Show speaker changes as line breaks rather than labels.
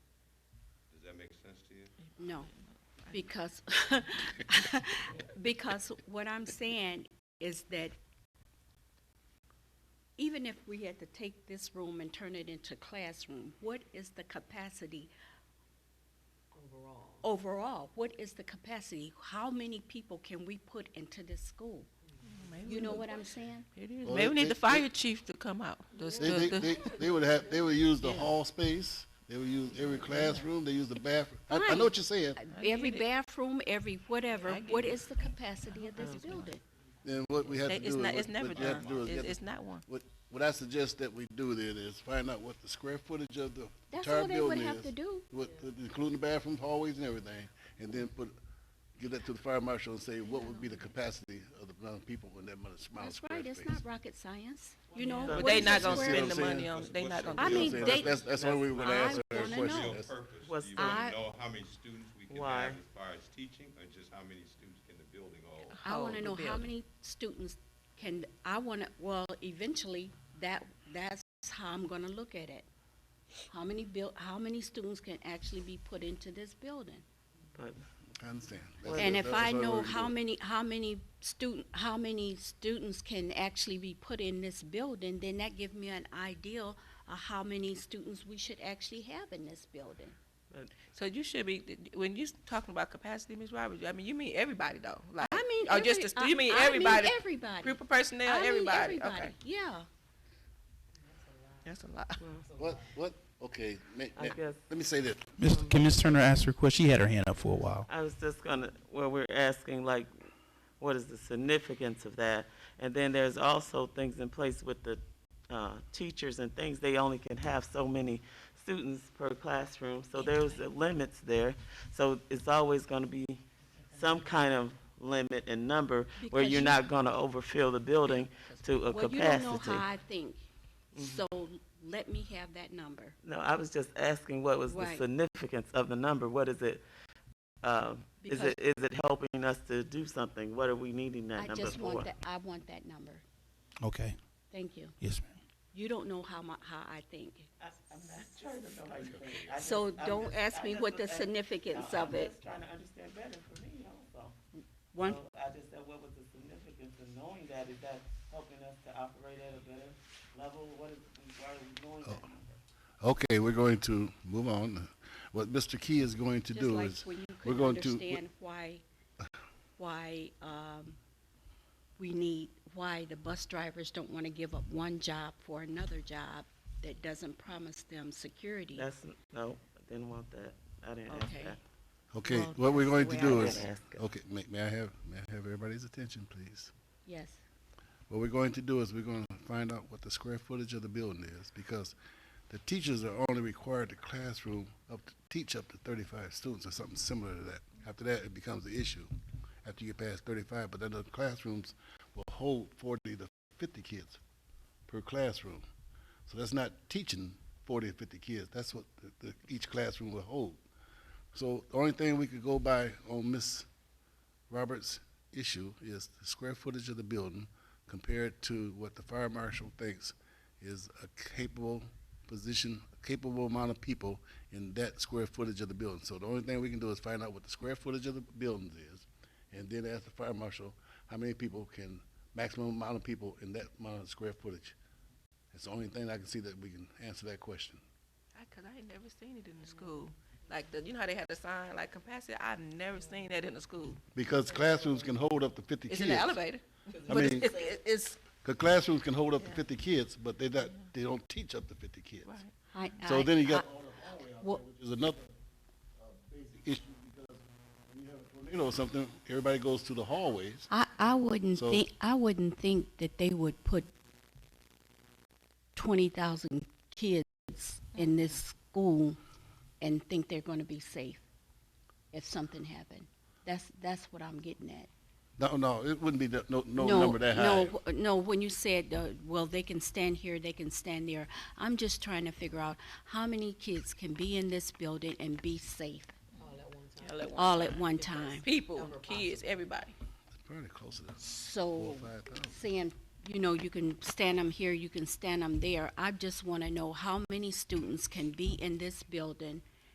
make sense to you?
No, because, because what I'm saying is that even if we had to take this room and turn it into classroom, what is the capacity
overall.
overall? What is the capacity? How many people can we put into this school? You know what I'm saying?
It is.
Well,
Maybe we
they-
need the
they-
fire chief to come out. The-
They,
the-
they,
the-
they, they would have, they would use the
Yeah.
hall space, they would use every classroom, they use the bathroom. I, I
Right.
know what you're saying,
get
Every
it.
bathroom, every whatever,
I get
what
it.
is the capacity of this building?
and what we have to
they-
do
It's
is,
not,
what
it's never
what you
done.
have to do is,
It's
get-
it's not one.
what, what I suggest that we do then is find out what the square footage of the
That's
entire
all they would
building
have to
is.
do.
What, including the bathrooms, hallways and everything, and then put, give that to the fire marshal and say, what would be the capacity of the amount of people in that amount of small
That's
square
right,
space?
it's not rocket science, you know?
But
what
they
is the
not gonna
square-
See
spend
what I'm
the money
saying?
on, they not gonna.
I
You know what I'm
mean,
saying?
they-
That's, that's why we would
I
answer that
wanna
question.
know.
Real
That's-
purpose,
Was
do you wanna
I-
know how many students we can
Why?
have as far as teaching, or just how many students can the building hold?
I
hold
want to
the
know how
building.
many students can, I want to, well, eventually, that, that's how I'm going to look at it. How many buil, how many students can actually be put into this building?
But
I understand. That's-
And
that's-
if
that's
I
why we
know
would do
how
it.
many, how many student, how many students can actually be put in this building, then that give me an idea of how many students we should actually have in this building.
So you should be, when you talking about capacity, Ms. Roberts, I mean, you mean everybody though? Like,
I mean,
Or just
every-
the stu- you
I-
mean
I
everybody?
everybody.
Group of
I
personnel,
mean
everybody, okay.
Yeah.
That's a lot.
What, what, okay, ma-
I
ma-
guess
let me say this,
Miss, can Miss Turner ask her question? She had her hand up for a while.
I was just gonna, well, we're asking like, what is the significance of that? And then there's also things in place with the, uh, teachers and things, they only can have so many students per classroom, so there's the limits there. So it's always gonna be some kind of limit in number where
Because
you're
you-
not gonna overfill the building to a
Well, you don't know
capacity.
how I think, so let me have that number.
No, I was just asking what was the
Right.
significance of the number? What is it? um, Is
Because-
it, is it helping us to do something? What are we needing that
I
number
just want
for?
that, I want that number.
Okay.
Thank you.
Yes, ma'am.
You don't know how my, how I think. So don't ask me what the significance of it.
trying to understand better for me also.
One,
I just said, what was the significance of knowing that? Is that helping us to operate at a better level? What is, why are we knowing that number?
okay, we're going to move on, what Mr. Key is going to
just
do
like
is,
when you
we're
couldn't
going to.
understand why, why, um, we need, why the bus drivers don't wanna give up one job for another job that doesn't promise them security.
That's, no, I didn't want that. I didn't ask
Okay.
that.
Okay,
Well,
what we're going to
that's
the
do
way I
is,
would ask it.
okay, may, may I have, may I have everybody's attention, please?
Yes,
What we're going to do is we're gonna find out what the square footage of the building is, because the teachers are only required to classroom up, to teach up to thirty-five students or something similar to that. After that, it becomes an issue, after you get past thirty-five, but then the classrooms will hold forty to fifty kids per classroom. So that's not teaching forty or fifty kids, that's what the, the, each classroom will hold. So the only thing we could go by on Miss Roberts' issue is the square footage of the building compared to what the fire marshal thinks is a capable position, a capable amount of people in that square footage of the building. So the only thing we can do is find out what the square footage of the buildings is, and then ask the fire marshal how many people can, maximum amount of people in that amount of square footage. It's the only thing I can see that we can answer that question.
I- Cause I ain't never seen it in the school. Like, the, you know how they had the sign, like capacity, I've never seen that in the school.
Because classrooms can hold up to fifty
It's
kids.
in the elevator.
I
But it's,
mean-
it's, it's,
The classrooms can hold up to
Yeah.
fifty kids, but they not, they don't teach up to fifty kids.
right.
I,
So
I-
then you
I-
got,
Well-
which is another uh, basic issue because when you have a tornado or something, everybody goes to the hallways.
I, I wouldn't
So-
think, I wouldn't think that they would put twenty thousand kids in this school and think they're gonna be safe if something happened. That's, that's what I'm getting at.
No, no, it wouldn't be that, no, no number that high.
No, w- no, when you said, uh, well, they can stand here, they can stand there, I'm just trying to figure out how many kids can be in this building and be safe
All at once.
all at one time.
People, kids, everybody.
It's Probably closer to four,
So
five thousand.
saying, you know, you can stand them here, you can stand them there. I just want to know how many students can be in this building